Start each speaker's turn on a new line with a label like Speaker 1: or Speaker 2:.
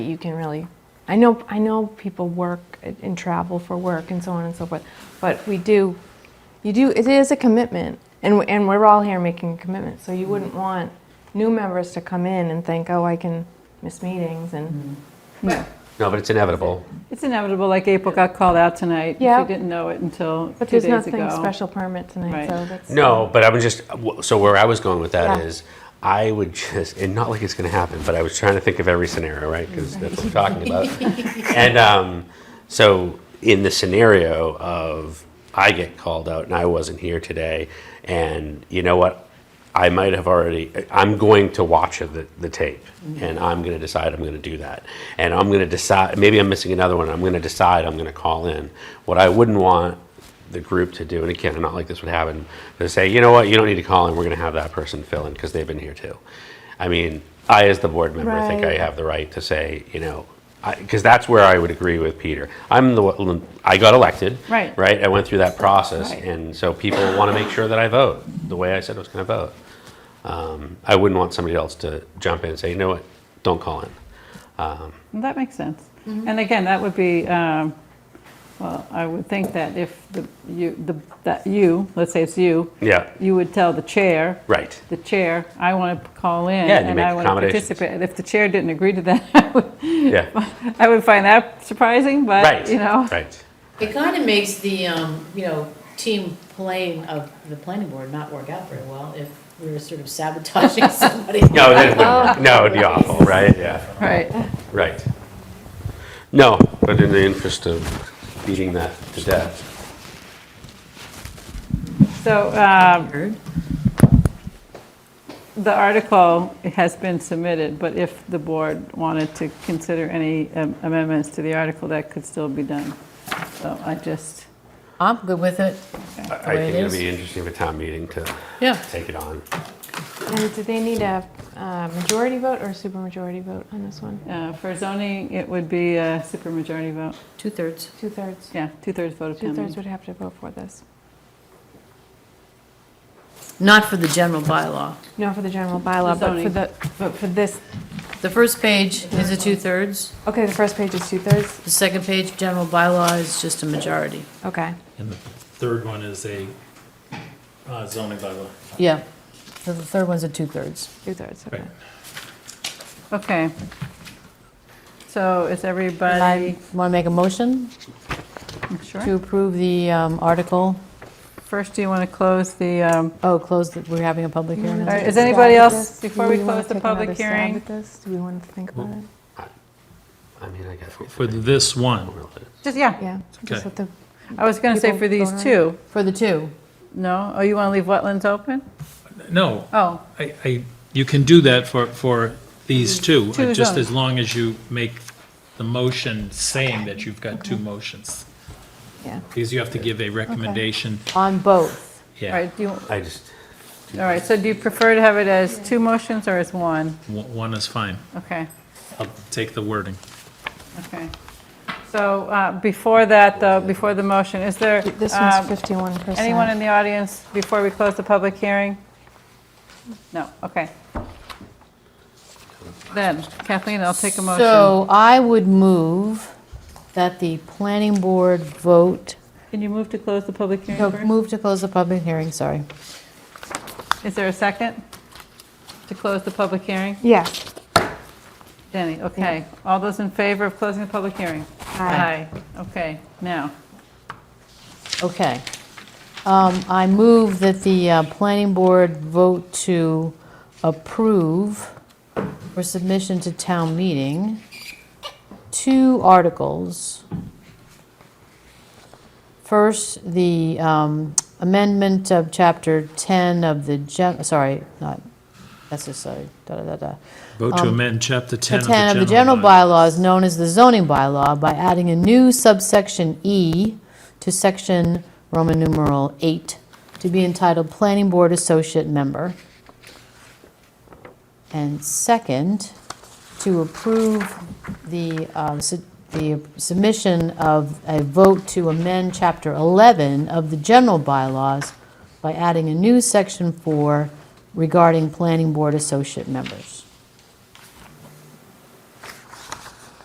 Speaker 1: you can really, I know, I know people work and travel for work and so on and so forth, but we do, you do, it is a commitment, and, we- and we're all here making a commitment, so you
Speaker 2: Mm-hmm.
Speaker 1: wouldn't want new members to come in and think, oh, I can miss meetings
Speaker 2: Mm-hmm.
Speaker 1: and,
Speaker 3: No, but it's inevitable.
Speaker 2: It's inevitable, like April got called out tonight.
Speaker 1: Yeah.
Speaker 2: She didn't know it until
Speaker 1: but
Speaker 2: two
Speaker 1: there's
Speaker 2: days
Speaker 1: nothing
Speaker 2: ago.
Speaker 1: special permit tonight,
Speaker 2: Right.
Speaker 1: so that's.
Speaker 3: No, but I'm just, so where I was going with that
Speaker 1: Yeah.
Speaker 3: is, I would just, and not like it's going to happen, but I was trying to think of every scenario, right? Because that's what we're talking about. and um, so, in the scenario of I get called out and I wasn't here today, and you know what? I might have already, I'm going to watch the, the tape and I'm going to decide I'm going to do that. And I'm going to decide, maybe I'm missing another one, I'm going to decide I'm going to call in. What I wouldn't want the group to do, and again, I'm not like this would happen, to say, you know what, you don't need to call in, we're gonna have that person fill in, because they've been here too. I mean, I, as the board member, I think I
Speaker 1: Right.
Speaker 3: have the right to say, you know, because that's where I would agree with Peter. I'm the, one- I got elected.
Speaker 2: Right.
Speaker 3: Right, I went through that process,
Speaker 2: Right.
Speaker 3: and so people wanna make sure that I vote, the way I said I was gonna vote. Um, I wouldn't want somebody else to jump in and say, you know what, don't call in.
Speaker 2: Well, That makes sense.
Speaker 1: Mm-hmm.
Speaker 2: And again, that would be, um, well, I would think that if the, you, the that you, let's say it's you,
Speaker 3: Yeah,
Speaker 2: you would tell the chair.
Speaker 3: right.
Speaker 2: The chair, I want to call in.
Speaker 3: Yeah, and you make
Speaker 2: I want to
Speaker 3: accommodations.
Speaker 2: participate. And If the chair didn't agree to that, I would,
Speaker 3: Yeah,
Speaker 2: I would find that surprising,
Speaker 3: right.
Speaker 2: but, you know.
Speaker 3: Right.
Speaker 4: It kind of makes the, um, you know, team playing of the planning board not work out very well if we were sort of sabotaging somebody.
Speaker 3: No, that wouldn't work. no, it'd be awful, right? Yeah.
Speaker 2: Right.
Speaker 3: Right. No, but in the interest of beating that to death.
Speaker 2: So um, the article has been submitted, but if the board wanted to consider any um, amendments to the article, that could still be done. So I just,
Speaker 4: I'm good with it.
Speaker 3: I
Speaker 4: way
Speaker 3: I think
Speaker 4: it
Speaker 3: it'd
Speaker 4: is.
Speaker 3: be interesting for town meeting to
Speaker 4: Yeah.
Speaker 3: take it on.
Speaker 1: And do they need a uh, majority vote or a supermajority vote on this one?
Speaker 2: uh, for zoning, it would be a supermajority vote.
Speaker 4: Two-thirds.
Speaker 1: Two-thirds,
Speaker 2: Yeah, two-thirds vote of town
Speaker 1: two-thirds
Speaker 2: meeting.
Speaker 1: would have to vote for this.
Speaker 4: Not for the general bylaw.
Speaker 1: No, for the general bylaw, but for
Speaker 2: zoning.
Speaker 1: the, but for this,
Speaker 4: The first page is a two-thirds,
Speaker 1: okay, the first page is two-thirds?
Speaker 4: the second page, general bylaw, is just a majority.
Speaker 1: Okay.
Speaker 5: And the third one is a uh, zoning bylaw.
Speaker 4: Yeah, so the third one's a two-thirds.
Speaker 1: Two-thirds, okay.
Speaker 5: Right.
Speaker 2: Okay. So is everybody,
Speaker 4: Want to make a motion to
Speaker 2: sure?
Speaker 4: approve the um, article?
Speaker 2: First, do you want to close the, um,
Speaker 4: Oh, close, the- we're having a public hearing.
Speaker 2: All
Speaker 4: on
Speaker 2: right,
Speaker 4: it?
Speaker 2: is anybody else, before we close the public hearing?
Speaker 1: Do we want to think about it?
Speaker 3: I mean, I guess.
Speaker 5: For this one,
Speaker 2: Just, yeah,
Speaker 1: Yeah. just
Speaker 5: Okay.
Speaker 1: let the-
Speaker 2: I was going to say
Speaker 1: People
Speaker 2: for these
Speaker 1: vote on it.
Speaker 2: two.
Speaker 4: For the two.
Speaker 2: No? Oh, you want to leave wetlands open?
Speaker 5: no,
Speaker 2: Oh,
Speaker 5: I, I, you can do that for, for these
Speaker 4: Mm.
Speaker 5: two, uh,
Speaker 2: Two
Speaker 5: just
Speaker 2: zones.
Speaker 5: as long as you make the motion saying that you've got two motions.
Speaker 1: Yeah.
Speaker 5: Because you have to give a recommendation,
Speaker 4: On both.
Speaker 2: all
Speaker 5: yeah,
Speaker 2: right, do you, all
Speaker 3: I just,
Speaker 2: right, so do you prefer to have it as two motions or as one?
Speaker 5: one one is fine.
Speaker 2: Okay,
Speaker 5: I'll take the wording.
Speaker 2: okay. So uh, before that, though, before the motion, is there
Speaker 1: This
Speaker 2: um,
Speaker 1: one's fifty-one percent.
Speaker 2: anyone in the audience before we close the public hearing? No, okay. Then Kathleen, I'll take a motion.
Speaker 4: So I would move that the planning board vote,
Speaker 2: Can you move to close the public
Speaker 4: no,
Speaker 2: hearing first?
Speaker 4: move to close the public hearing, sorry.
Speaker 2: Is there a second to close the public hearing?
Speaker 1: Yeah.
Speaker 2: Jenny, okay. All those in favor of closing the public hearing?
Speaker 1: Aye.
Speaker 2: Okay, now,
Speaker 4: Okay. Um, I move that the uh, planning board vote to approve for submission to town meeting, two articles. First, the um, amendment of Chapter 10 of the, gen- sorry, not necessary, da-da-da-da.
Speaker 5: Vote to amend chapter 10
Speaker 4: Um, The 10 of the general bylaws, known as the zoning bylaw, by adding a new subsection E to section Roman numeral 8, to be entitled Planning Board Associate Member. And second, to approve the, um, su- the submission of a vote to amend Chapter 11 of the general bylaws by adding a new section 4 regarding Planning Board Associate Members.